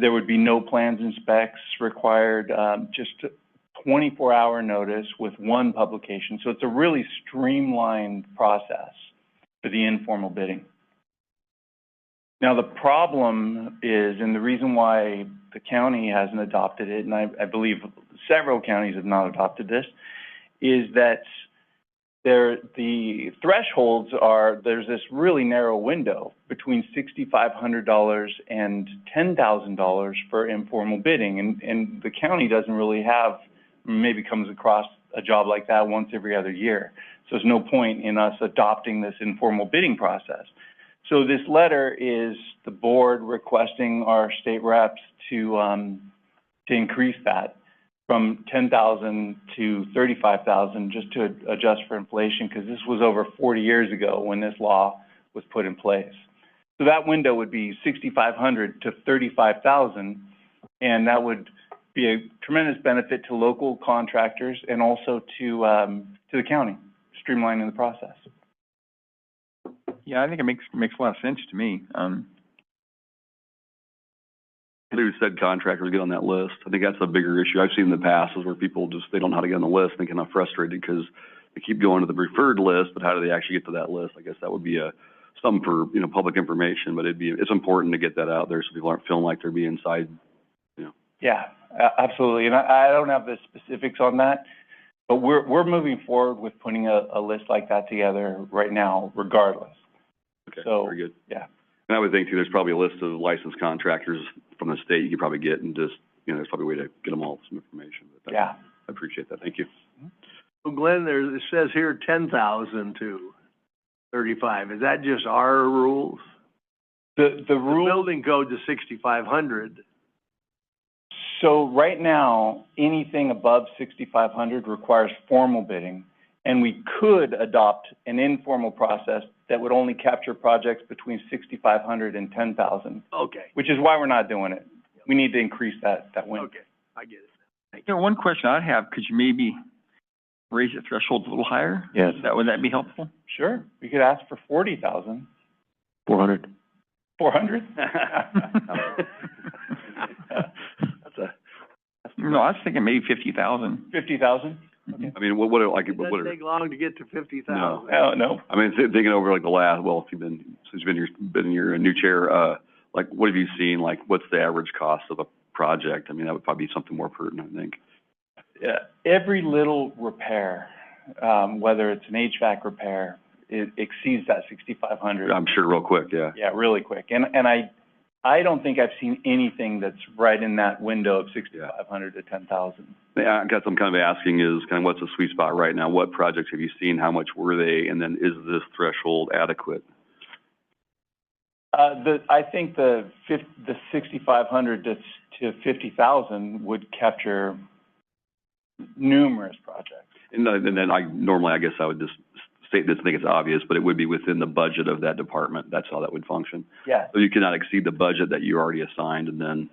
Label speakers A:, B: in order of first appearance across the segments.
A: there would be no plans and specs required, um, just twenty-four hour notice with one publication. So it's a really streamlined process for the informal bidding. Now, the problem is, and the reason why the county hasn't adopted it, and I, I believe several counties have not adopted this, is that there, the thresholds are, there's this really narrow window between sixty-five hundred dollars and ten thousand dollars for informal bidding, and, and the county doesn't really have, maybe comes across a job like that once every other year. So there's no point in us adopting this informal bidding process. So this letter is the board requesting our state reps to, um, to increase that from ten thousand to thirty-five thousand, just to adjust for inflation, because this was over forty years ago when this law was put in place. So that window would be sixty-five hundred to thirty-five thousand, and that would be a tremendous benefit to local contractors and also to, um, to the county, streamlining the process.
B: Yeah, I think it makes, makes a lot of sense to me. Um,
C: Who said contractors get on that list? I think that's a bigger issue I've seen in the past is where people just, they don't know how to get on the list and they get kind of frustrated because they keep going to the preferred list, but how do they actually get to that list? I guess that would be a, some for, you know, public information, but it'd be, it's important to get that out there so people aren't feeling like they're being side.
A: Yeah, a- absolutely. And I, I don't have the specifics on that, but we're, we're moving forward with putting a, a list like that together right now regardless.
C: Okay,
A: So,
C: very good.
A: yeah.
C: And I would think too, there's probably a list of licensed contractors from the state you could probably get and just, you know, there's probably a way to get them all some information. but that-
A: Yeah.
C: I appreciate that. Thank you.
D: Well, Glenn, there, it says here ten thousand to thirty-five. Is that just our rules?
A: The, the
D: The
A: rule,
D: building code is sixty-five hundred.
A: so right now, anything above sixty-five hundred requires formal bidding. And we could adopt an informal process that would only capture projects between sixty-five hundred and ten thousand,
D: Okay,
A: which is why we're not doing it. We need to increase that, that window.
D: okay, I get it.
B: you know, one question I'd have, could you maybe raise the threshold a little higher?
A: Yes.
B: That, would that be helpful?
A: Sure, we could ask for forty thousand.
C: Four hundred.
A: Four hundred?
C: That's a,
B: No, I was thinking maybe fifty thousand.
A: Fifty thousand?
C: I mean, what, what, are- like,
D: It
C: what
D: doesn't
C: are,
D: take long to get to fifty
C: No.
D: thousand.
A: Oh, no.
C: I mean, thi- thinking over like the last, well, if you've been, since you've been your, been in your new chair, uh, like, what have you seen? Like, what's the average cost of a project? I mean, that would probably be something more pertinent, I think.
A: Yeah, every little repair, um, whether it's an HVAC repair, it exceeds that sixty-five hundred.
C: I'm sure real quick, yeah.
A: Yeah, really quick. And, and I, I don't think I've seen anything that's right in that window of sixty-five hundred to ten thousand.
C: Yeah, I guess I'm kind of asking is kind of what's the sweet spot right now? What projects have you seen? How much were they? And then is this threshold adequate?
A: Uh, the, I think the fif, the sixty-five hundred to, to fifty thousand would capture numerous projects.
C: And then, and then I, normally, I guess I would just state this, I think it's obvious, but it would be within the budget of that department. That's how that would function.
A: Yes.
C: So you cannot exceed the budget that you already assigned and then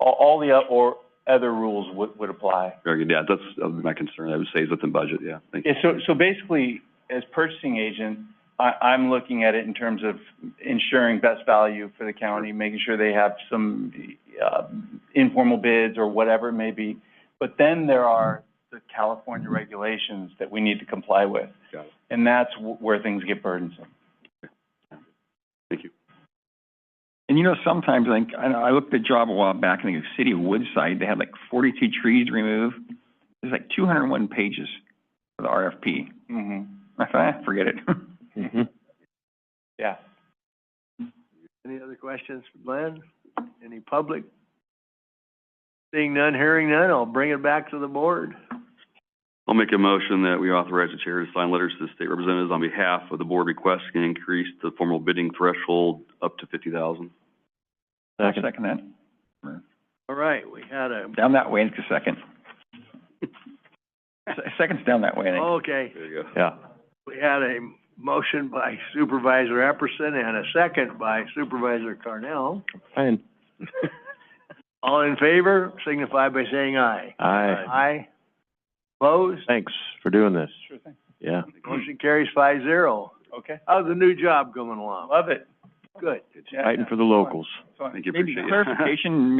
A: All, all the, o- or other rules would, would apply.
C: Very good. Yeah, that's uh, my concern. I would say is within budget. Yeah, thank you.
A: Yeah, so, so basically, as purchasing agent, I, I'm looking at it in terms of ensuring best value for the county, making sure they have some, uh, informal bids or whatever it may be. But then there are the California regulations that we need to comply with.
C: Got it.
A: And that's wh- where things get burdensome.
B: And you know, sometimes, like, I, I looked at a job a while back in the city of Woodside, they had like forty-two trees to remove. There's like two hundred and one pages for the RFP.
A: Mm-hmm,
B: I thought, ah, forget it.
A: yeah.
D: Any other questions for Glenn? Any public? Seeing none, hearing none, I'll bring it back to the board.
C: I'll make a motion that we authorize the chair to sign letters to the state representatives on behalf of the board requesting an increase to the formal bidding threshold up to fifty thousand.
B: Second that,
D: All right, we had a,
B: down that way, it's a second. Se- Second's down that way, I think.
D: okay.
C: There you go.
B: Yeah.
D: We had a motion by Supervisor Epperson and a second by Supervisor Carnell.
E: Fine.
D: All in favor, signify by saying aye.
E: Aye.
D: Aye. Opposed?
E: Thanks for doing this.
A: Sure thing.
E: Yeah.
D: Motion carries five zero.
A: Okay,
D: How's the new job coming along?
A: love it.
D: Good.
A: Yeah,
E: Fighting for the locals.
A: it's fun.
C: Thank you.
B: Maybe
C: Appreciate it.
B: clarification,